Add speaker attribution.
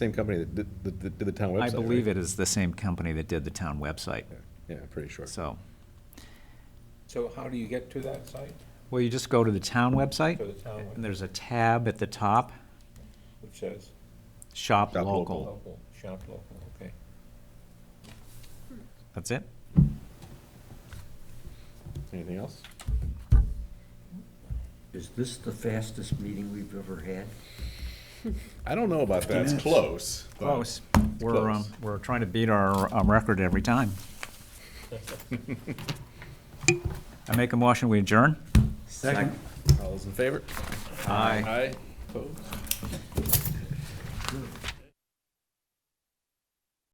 Speaker 1: Same company that did, that- that did the town website.
Speaker 2: I believe
Speaker 1: right?
Speaker 2: it is the same company that did the town website,
Speaker 1: Yeah, I'm pretty sure.
Speaker 2: so.
Speaker 3: So how do you get to that site,
Speaker 2: Well, you just go to the town
Speaker 3: to the
Speaker 2: website,
Speaker 3: town,
Speaker 2: and there's a tab at the top,
Speaker 3: which says
Speaker 2: Shop
Speaker 1: Shop Local.
Speaker 2: Local.
Speaker 3: local, shop local, okay.
Speaker 2: That's it?
Speaker 1: Anything else?
Speaker 4: Is this the fastest meeting we've ever had?
Speaker 1: I don't know about that. It's close. but-
Speaker 2: Close. We're, um,
Speaker 1: Close.
Speaker 2: we're trying to beat our, um, record every time. I make a motion, we adjourn?
Speaker 1: All those in favor? Aye.
Speaker 2: Aye.
Speaker 1: Opposed?